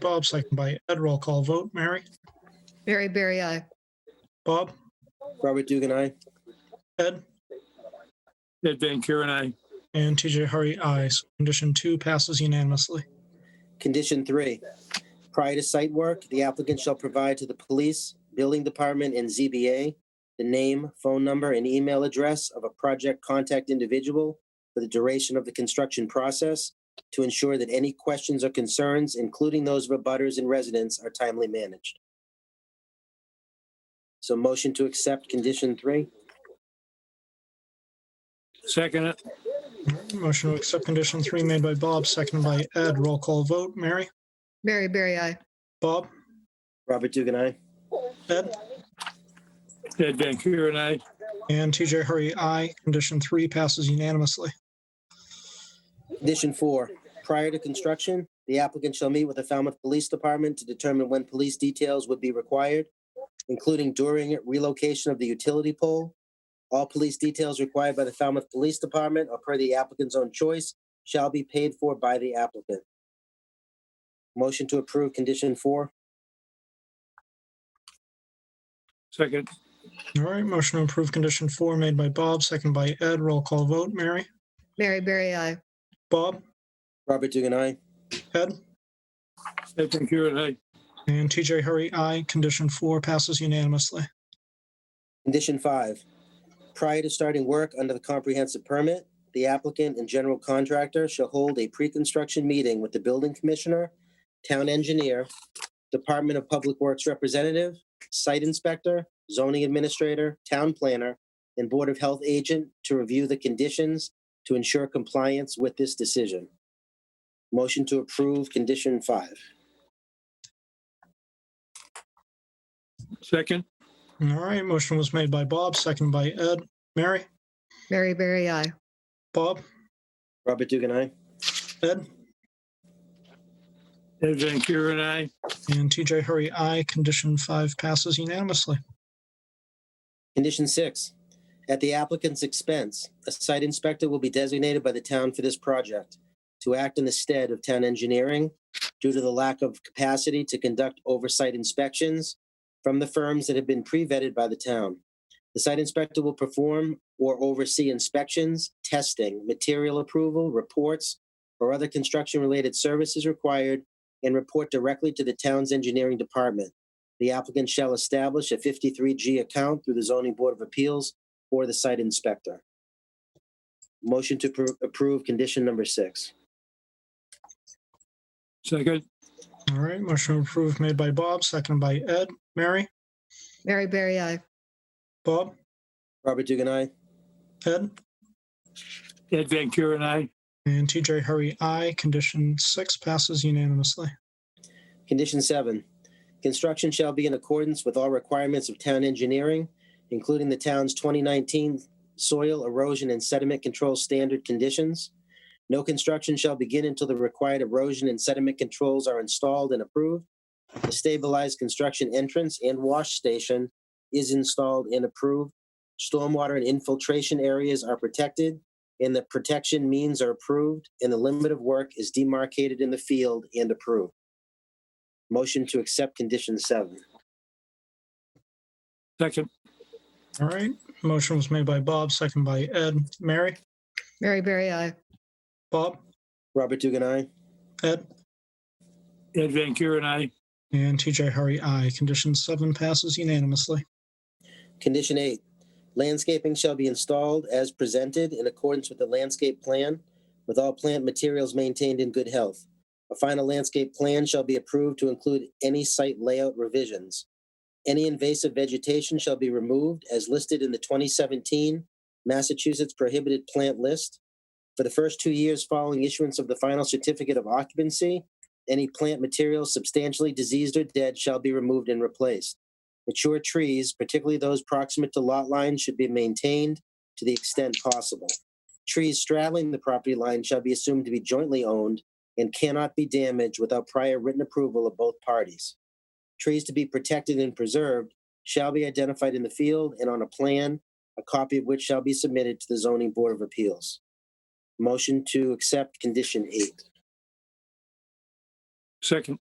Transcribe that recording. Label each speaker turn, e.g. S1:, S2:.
S1: Bob, second by Ed. Roll call vote. Mary?
S2: Mary Berry I.
S1: Bob?
S3: Robert Dugan, aye.
S1: Ed?
S4: Ed Van Kuren, I.
S1: And TJ Hurry, aye. So Condition two passes unanimously.
S3: Condition three, prior to site work, the applicant shall provide to the police, building department, and ZBA the name, phone number, and email address of a project contact individual for the duration of the construction process to ensure that any questions or concerns, including those of abutters and residents, are timely managed. So motion to accept condition three?
S4: Second it,
S1: Motion to accept condition three made by Bob, seconded by Ed. Roll call vote. Mary?
S2: Mary Berry I.
S1: Bob?
S3: Robert Dugan, aye.
S1: Ed?
S4: Ed Van Kuren, I.
S1: And TJ Hurry, aye. Condition three passes unanimously.
S3: Condition four, prior to construction, the applicant shall meet with the Falmouth Police Department to determine when police details would be required, including during relocation of the utility pole. All police details required by the Falmouth Police Department or per the applicant's own choice shall be paid for by the applicant. Motion to approve condition four?
S4: Second,
S1: All right, motion to approve condition four made by Bob, seconded by Ed. Roll call vote. Mary?
S2: Mary Berry I.
S1: Bob?
S3: Robert Dugan, aye.
S1: Ed?
S4: Ed Van Kuren, I.
S1: And TJ Hurry, aye. Condition four passes unanimously.
S3: Condition five, prior to starting work under the comprehensive permit, the applicant and general contractor shall hold a pre-construction meeting with the building commissioner, town engineer, Department of Public Works representative, site inspector, zoning administrator, town planner, and Board of Health agent to review the conditions to ensure compliance with this decision. Motion to approve condition five.
S4: Second,
S1: All right, motion was made by Bob, seconded by Ed. Mary?
S2: Mary Berry I.
S1: Bob?
S3: Robert Dugan, aye.
S1: Ed?
S4: Ed Van Kuren, I.
S1: And TJ Hurry, aye. Condition five passes unanimously.
S3: Condition six, at the applicant's expense, a site inspector will be designated by the town for this project to act in the stead of town engineering due to the lack of capacity to conduct oversight inspections from the firms that have been pre-vetted by the town. The site inspector will perform or oversee inspections, testing, material approval, reports, or other construction-related services required and report directly to the town's engineering department. The applicant shall establish a 53G account through the zoning board of appeals or the site inspector. Motion to appro- approve condition number six.
S4: Second,
S1: All right, motion to approve made by Bob, seconded by Ed. Mary?
S2: Mary Berry I.
S1: Bob?
S3: Robert Dugan, aye.
S1: Ed?
S4: Ed Van Kuren, I.
S1: And TJ Hurry, aye. Condition six passes unanimously.
S3: Condition seven, construction shall be in accordance with all requirements of town engineering, including the town's 2019 soil erosion and sediment control standard conditions. No construction shall begin until the required erosion and sediment controls are installed and approved. The stabilized construction entrance and wash station is installed and approved. Stormwater and infiltration areas are protected, and the protection means are approved, and the limit of work is demarcated in the field and approved. Motion to accept condition seven.
S4: Second,
S1: All right, motion was made by Bob, seconded by Ed. Mary?
S2: Mary Berry I.
S1: Bob?
S3: Robert Dugan, aye.
S1: Ed?
S4: Ed Van Kuren, I.
S1: And TJ Hurry, aye. Condition seven passes unanimously.
S3: Condition eight, landscaping shall be installed as presented in accordance with the landscape plan with all plant materials maintained in good health. A final landscape plan shall be approved to include any site layout revisions. Any invasive vegetation shall be removed as listed in the 2017 Massachusetts prohibited plant list. For the first two years following issuance of the final certificate of occupancy, any plant material substantially diseased or dead shall be removed and replaced. Mature trees, particularly those proximate to lot lines, should be maintained to the extent possible. Trees straddling the property line shall be assumed to be jointly owned and cannot be damaged without prior written approval of both parties. Trees to be protected and preserved shall be identified in the field and on a plan, a copy of which shall be submitted to the zoning board of appeals. Motion to accept condition eight.
S4: Second,